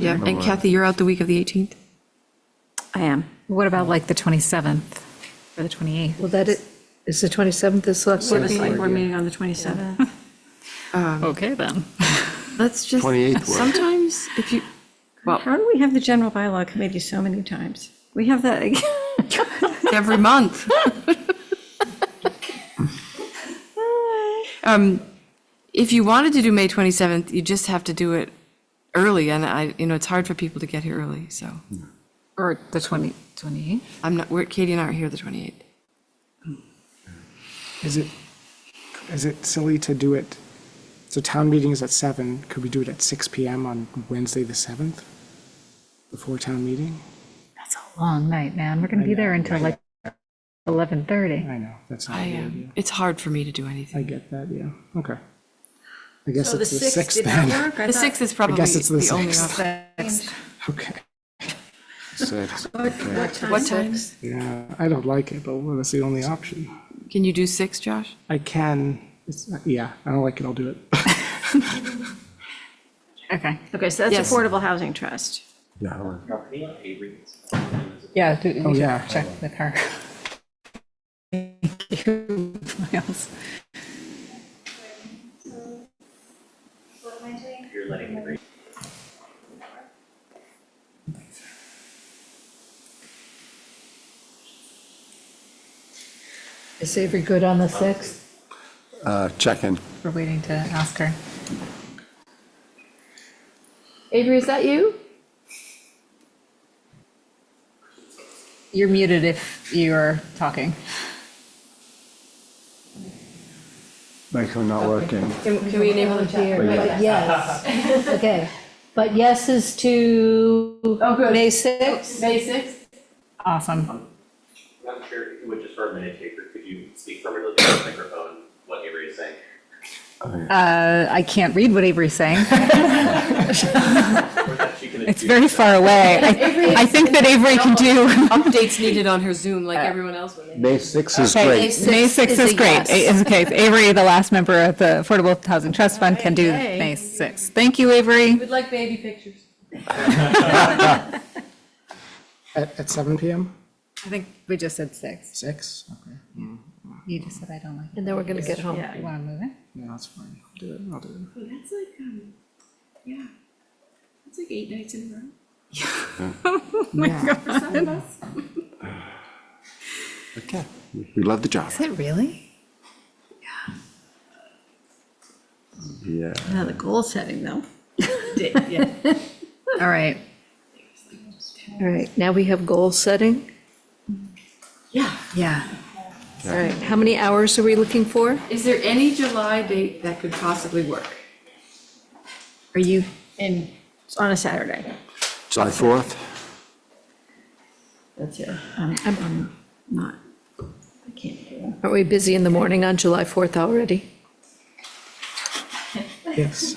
Yeah, and Kathy, you're out the week of the 18th? I am. What about like the 27th or the 28th? Well, that is, is the 27th, the select board meeting? Um, Select board meeting on the 27th. Okay, then. Let's just, 28th works. sometimes if you, How do we have the general bylaw committee so many times? We have that, every month. Um, If you wanted to do May 27th, you just have to do it early, and I, you know, it's hard for people to get here early, so. Or the 20, 28th? I'm not, we're, Katie and I are here the 28th. Is it, is it silly to do it, so town meeting is at seven, could we do it at six PM on Wednesday, the seventh? Before town meeting? That's a long night, man. We're going to be there until like 11:30. I know, that's not I, a good um, idea. it's hard for me to do anything. I get that, yeah, okay. I guess it's the sixth then. The 6th is probably guess it's the the only 6th. option. Okay, Six, okay. What time? yeah, I don't like it, but well, that's the only option. Can you do 6, Josh? I can, it's, yeah, I don't like it, I'll do it. Okay. Okay, so that's Yes. Affordable Housing Trust. Yeah, I'll- Yeah, do, Oh, yeah. check with her. Thank you, Miles. Is Avery good on the 6th? uh, check in. We're waiting to ask her. Avery, is that you? You're muted if you're talking. Microphone not working. Can we enable the chat? Yes, okay. But yes is to May 6th? May 6th? Awesome. Madam Chair, if you would just for a minute, Taker, could you speak from your microphone, what Avery is saying? Uh, I can't read what Avery's saying. Or that she can It's very far away. I I think that Avery can do. Updates needed on her Zoom like everyone else would. May 6 is Okay, great. May 6th is great. A- is- Okay, Avery, the last member of the Affordable Housing Trust Fund, can do May 6th. Thank you, Avery. We'd like baby pictures. At, at seven PM? I think we just said 6. Six? Okay, You just said I don't like And then we're going to get home. it. You want to move it? yeah, that's fine, I'll do it, I'll do it. That's like, um, yeah, that's like eight nights in a row. Okay, we love the job. Is it really? Yeah. Now the goal setting, though. All right. All right, now we have goal setting. Yeah. All right, how many hours are we looking for? Is there any July date that could possibly work? Are you, And it's on a Saturday. July 4th? That's it. I'm, I'm not, I can't do it. Aren't we busy in the morning on July 4th already? Yes.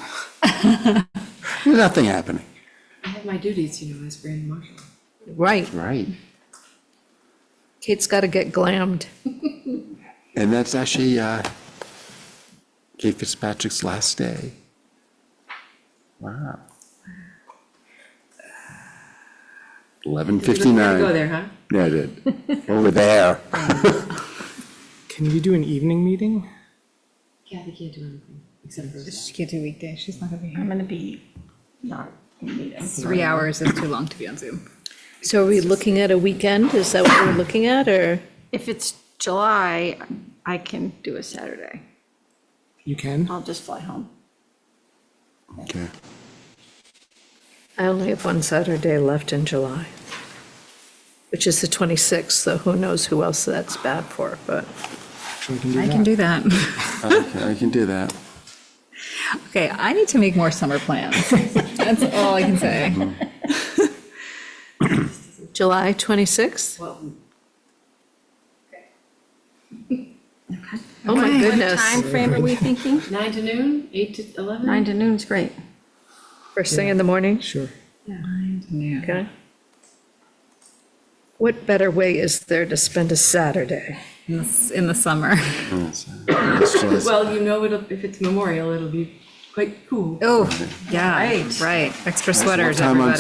Nothing happening. I have my duties, you know, as grand marshal. Right, Right. Kate's got to get glammed. And that's actually uh, Kate Fitzpatrick's last day. Wow. 11:59. Go there, huh? Yeah, I did. Over there. Can we do an evening meeting? Kathy can't do anything except for. she can't do weekday, she's not going to be I'm here. gonna be not in meetings. Three hours is too long to be on Zoom. So are we looking at a weekend? Is that what we're looking at, or? If it's July, I can do a Saturday. You can? I'll just fly home. Okay. I only have one Saturday left in July, which is the 26th, so who knows who else that's bad for, but We can do I that. can do that. Okay, I can do that. Okay, I need to make more summer plans. That's all I can say. July 26th? Oh, my Time goodness. frame are we thinking? Nine to noon, eight to 11? Nine to noon's great. First thing in the morning, Sure. Yeah. okay? What better way is there to spend a Saturday? It's in the summer. Well, you know, it'll, if it's memorial, it'll be quite cool. Oh, yeah, right. Extra sweaters, time on everybody.